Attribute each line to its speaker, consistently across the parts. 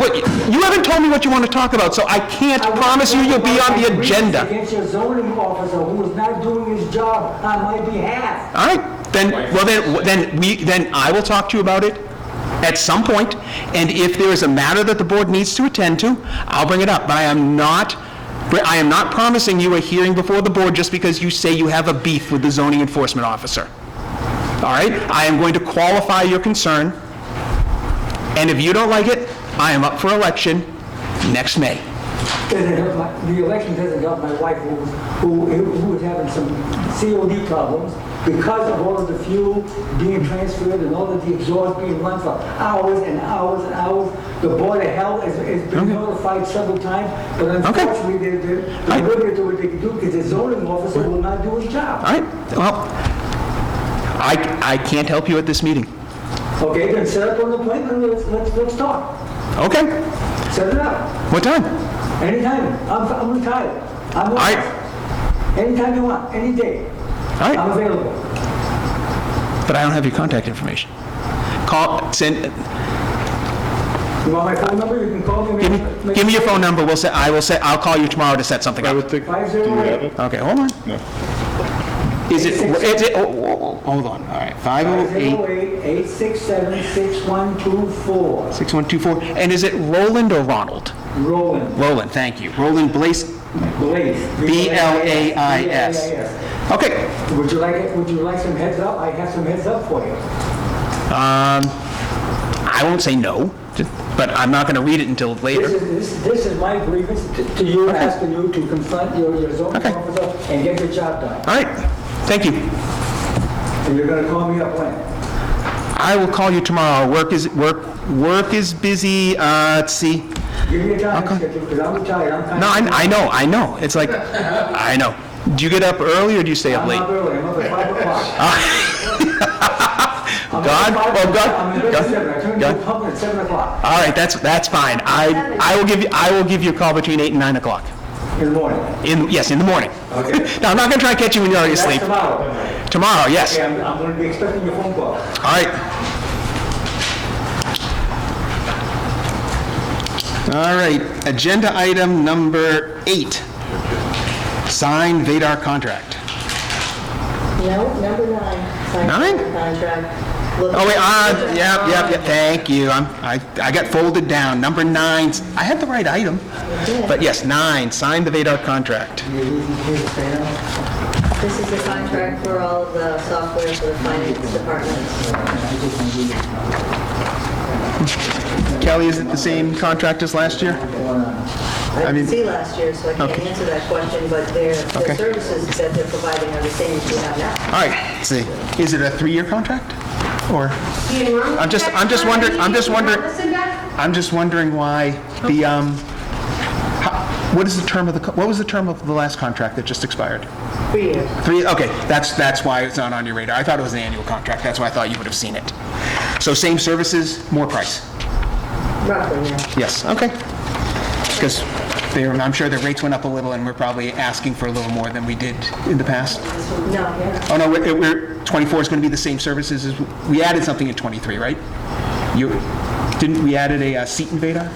Speaker 1: Wait, you haven't told me what you want to talk about, so I can't promise you you'll be on the agenda.
Speaker 2: Against your zoning officer who is not doing his job on my behalf.
Speaker 1: All right, then, well, then, then we, then I will talk to you about it at some point, and if there is a matter that the board needs to attend to, I'll bring it up, but I am not, I am not promising you a hearing before the board just because you say you have a beef with the zoning enforcement officer. All right? I am going to qualify your concern, and if you don't like it, I am up for election next May.
Speaker 2: Doesn't help my- The election doesn't help my wife who, who, who was having some COD problems because of all of the fuel being transferred and all of the exhaust being run for hours and hours and hours. The Board of Health has, has been notified several times, but unfortunately, they're, they're
Speaker 1: Right.
Speaker 2: they're limited to what they can do because the zoning officer will not do his job.
Speaker 1: All right? Well, I, I can't help you at this meeting.
Speaker 2: Okay, then set up an appointment, let's, let's, let's talk.
Speaker 1: Okay?
Speaker 2: Set it up,
Speaker 1: What time?
Speaker 2: anytime. I'm, I'm retired. I'm,
Speaker 1: I-
Speaker 2: off. anytime you want, any day.
Speaker 1: All right.
Speaker 2: I'm available.
Speaker 1: But I don't have your contact information. Call, send,
Speaker 2: You want my phone number? You can call me.
Speaker 1: give me, give me your phone number, we'll set, I will set, I'll call you tomorrow to set something
Speaker 3: I
Speaker 1: up.
Speaker 3: would think, do you
Speaker 2: Five zero
Speaker 3: have
Speaker 2: eight.
Speaker 3: it?
Speaker 1: Okay, hold on.
Speaker 3: No.
Speaker 1: Is it, is it, oh, oh, oh, hold on, all right, five
Speaker 2: Five
Speaker 1: oh
Speaker 2: zero
Speaker 1: eight,
Speaker 2: eight eight six seven six one two four.
Speaker 1: six one two four, and is it Roland or Ronald?
Speaker 2: Roland.
Speaker 1: Roland, thank you, Roland Blaze,
Speaker 2: Blaze.
Speaker 1: B-L-A-I-S.
Speaker 2: B-L-A-I-S.
Speaker 1: okay.
Speaker 2: Would you like, it? would you like some heads up? I have some heads up for you.
Speaker 1: Um, I won't say no, but I'm not gonna read it until
Speaker 2: This
Speaker 1: later.
Speaker 2: is, this- this is my grievance to- to you, asking you to confront your, your zoning
Speaker 1: Okay.
Speaker 2: officer and get your job done.
Speaker 1: All right, thank you.
Speaker 2: And you're gonna call me up when?
Speaker 1: I will call you tomorrow, work is, work, work is busy, uh, let's see.
Speaker 2: Give me a time
Speaker 1: Okay.
Speaker 2: schedule, because I'm retired, I'm kind
Speaker 1: No,
Speaker 2: of.
Speaker 1: I, I know, I know. It's like, I know. Do you get up early or do you stay up
Speaker 2: I'm
Speaker 1: late?
Speaker 2: up early, I'm up at five o'clock. I'm up
Speaker 1: God,
Speaker 2: at five
Speaker 1: oh,
Speaker 2: o'clock.
Speaker 1: God,
Speaker 2: I'm in bed
Speaker 1: God,
Speaker 2: at seven, I turn to
Speaker 1: God.
Speaker 2: the public at seven o'clock
Speaker 1: All right, that's, that's fine. I, I will give you, I will give you a call between eight and nine o'clock.
Speaker 2: in the morning.
Speaker 1: In, yes, in the morning.
Speaker 2: Okay.
Speaker 1: No, I'm not gonna try and catch you when you're already
Speaker 2: That's
Speaker 1: asleep.
Speaker 2: tomorrow.
Speaker 1: Tomorrow, yes.
Speaker 2: Okay, I'm, I'm gonna be expecting your phone call.
Speaker 1: All right. All right, agenda item number eight. Sign Vadar contract.
Speaker 4: No, number nine. signed
Speaker 1: Nine?
Speaker 4: Contract. Look-
Speaker 1: Oh, wait, uh, yep, yep, yep, thank you, I'm, I, I got folded down, number nine, I had the right item, but yes, nine, sign the Vadar contract.
Speaker 4: This is the contract for all of the software for the finance department.
Speaker 1: Kelly, is it the same contract as last year?
Speaker 4: I
Speaker 1: mean-
Speaker 4: didn't see last year, so I can't answer that question, but their,
Speaker 1: Okay.
Speaker 4: the services that they're providing are the same as we have now.
Speaker 1: All right, let's see, is it a three-year contract? Or, I'm just- I'm just wondering- I'm just wondering- I'm just wondering why the, um, how- what is the term of the, co- what was the term of the last contract that just expired?
Speaker 4: Three years.
Speaker 1: Three, okay, that's, that's why it's not on your radar, I thought it was an annual contract, that's why I thought you would have seen it. So same services, more price.
Speaker 4: Roughly, yeah.
Speaker 1: Yes, okay. Because I'm sure the rates went up a little, and we're probably asking for a little more than we did in the past.
Speaker 4: No, yeah.
Speaker 1: Oh, no, we're- we're, 24 is going to be the same services as, we added something in 23, right? You, didn't, we added a uh, seat invader?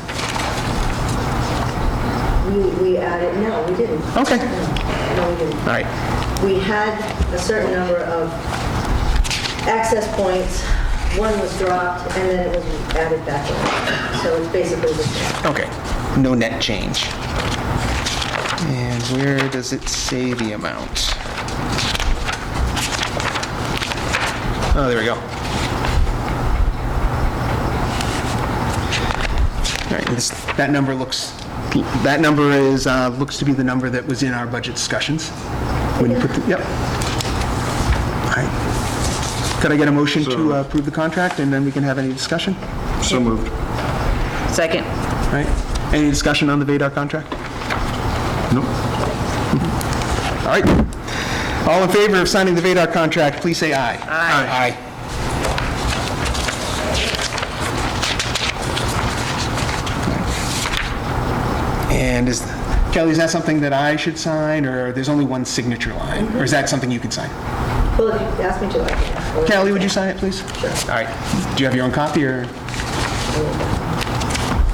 Speaker 4: We, we added, no, we didn't.
Speaker 1: Okay.
Speaker 4: No, we didn't.
Speaker 1: All right,
Speaker 4: we had a certain number of access points. One was dropped, and then it was added back in. So it's basically the same.
Speaker 1: okay, no net change. And where does it say the amount? Oh, there we go. All right, this, that number looks, that number is, uh, looks to be the number that was in our budget discussions. When you put, the- yep. All right. Could I get a motion to uh, approve the contract, and then we can have any discussion?
Speaker 3: So moved.
Speaker 5: Second.
Speaker 1: All Right? Any discussion on the VADAR contract?
Speaker 3: Nope.
Speaker 1: All right. All in favor of signing the VADAR contract, please say aye. Aye. Aye. And is, Kelly, is that something that I should sign, or there's only one signature line? Or is that something you can sign?
Speaker 4: Well, if you ask me to, I can.
Speaker 1: Kelly, would you sign it, please? Sure. All right. Do you have your own copy, or?